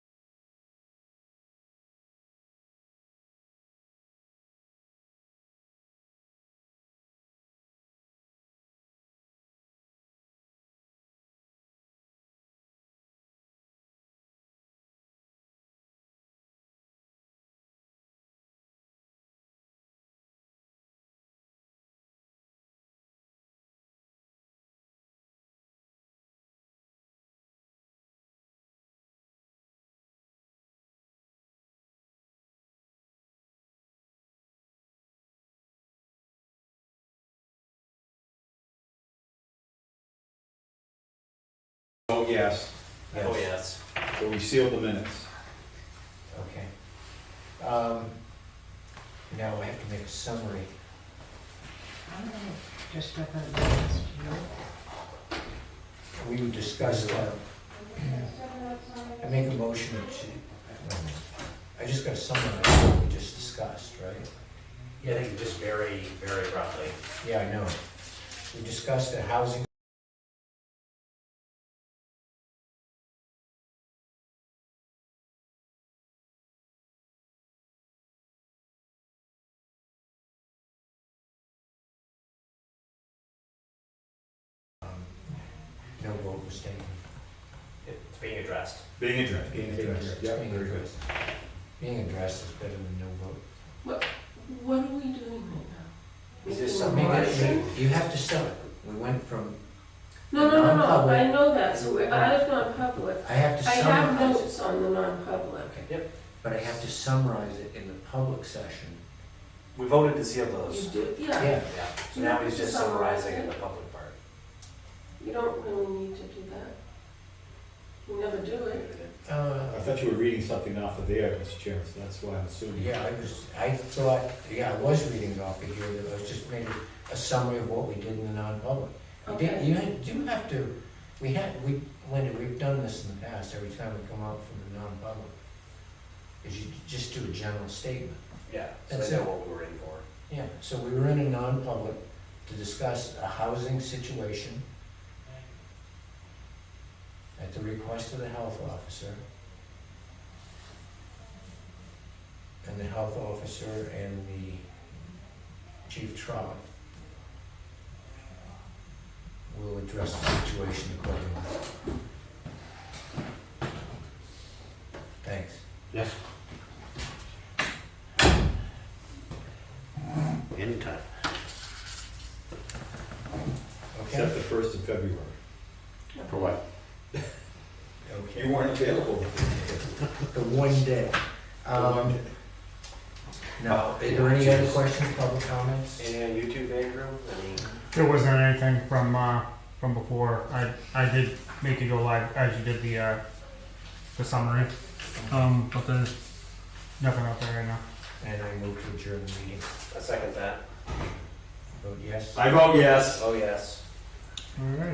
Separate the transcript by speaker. Speaker 1: Vote yes,
Speaker 2: Oh,
Speaker 3: Yes.
Speaker 2: yes.
Speaker 1: so we seal the minutes.
Speaker 3: Okay. Um, Now we have to make a summary.
Speaker 4: I don't know, just up on the list, you know?
Speaker 3: We discussed that. I make a motion to, I just gotta summarize what we just discussed, right?
Speaker 2: Yeah, I think just very, very roughly.
Speaker 3: Yeah, I know. We discussed the housing. Um, No vote was taken.
Speaker 2: It's being addressed.
Speaker 1: Being addressed.
Speaker 3: Being addressed.
Speaker 1: Yeah,
Speaker 3: Being
Speaker 1: very good.
Speaker 3: addressed. Being addressed is better than no vote.
Speaker 4: What are we doing right now?
Speaker 2: Is this
Speaker 3: I
Speaker 2: something
Speaker 3: mean,
Speaker 2: that
Speaker 3: you- You have to sell it. We went from,
Speaker 5: No, no, no, no,
Speaker 3: Non-public.
Speaker 5: I know that, so we're out of non-public.
Speaker 3: I have to
Speaker 5: I have
Speaker 3: summarize,
Speaker 5: notes on the non-public.
Speaker 3: but I have to summarize it in the public session.
Speaker 2: We voted to seal
Speaker 5: You
Speaker 2: those.
Speaker 5: do, yeah,
Speaker 3: Yeah,
Speaker 2: Yeah, so now he's just summarizing in the public part.
Speaker 5: you don't really need to do that. You never do it.
Speaker 3: uh,
Speaker 1: I thought you were reading something off of there, Mr. Chairman, so that's why I'm assuming.
Speaker 3: yeah, I was, I thought, yeah, I was reading it off of here, that I was just made a summary of what we did in the non-public. You did-
Speaker 5: Okay.
Speaker 3: You do have to, we had, we, Linda, we've done this in the past, every time we come out from the non-public, is you just do a general statement.
Speaker 2: Yeah, so
Speaker 3: That's
Speaker 2: they know
Speaker 3: it.
Speaker 2: what we were in for.
Speaker 3: Yeah, so we were in a non-public to discuss a housing situation at the request of the health officer. And the health officer and the chief trolley will address the situation accordingly. Thanks.
Speaker 6: Yes. Anytime.
Speaker 3: Okay?
Speaker 1: Except the first of February.
Speaker 6: For what?
Speaker 3: Okay.
Speaker 1: You weren't available.
Speaker 3: The one day. Um,
Speaker 2: Oh,
Speaker 3: Now, is there any other questions, public comments?
Speaker 2: Anything on YouTube, Andrew? Any?
Speaker 7: There wasn't anything from uh, from before. I I did make you go live as you did the uh, the summary, um, but there's nothing out there right now.
Speaker 3: And I move to adjourn the meeting.
Speaker 2: I second that.
Speaker 3: Vote yes.
Speaker 1: I vote yes.
Speaker 2: Oh, yes.
Speaker 7: All right.